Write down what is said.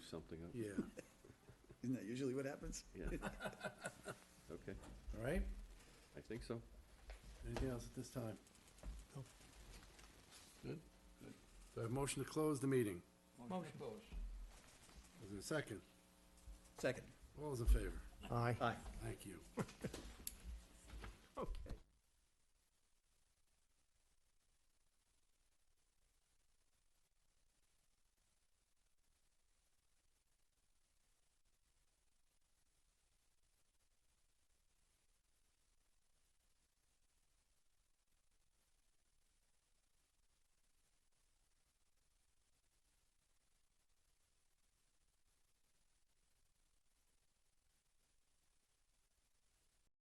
something up. Yeah, Isn't that usually what happens? Yeah. Okay, all right, I think so. anything else at this time? Good? So I have motion to close the meeting, Motion closed. is there a second? Second. All those in favor? Aye. Aye. Thank you.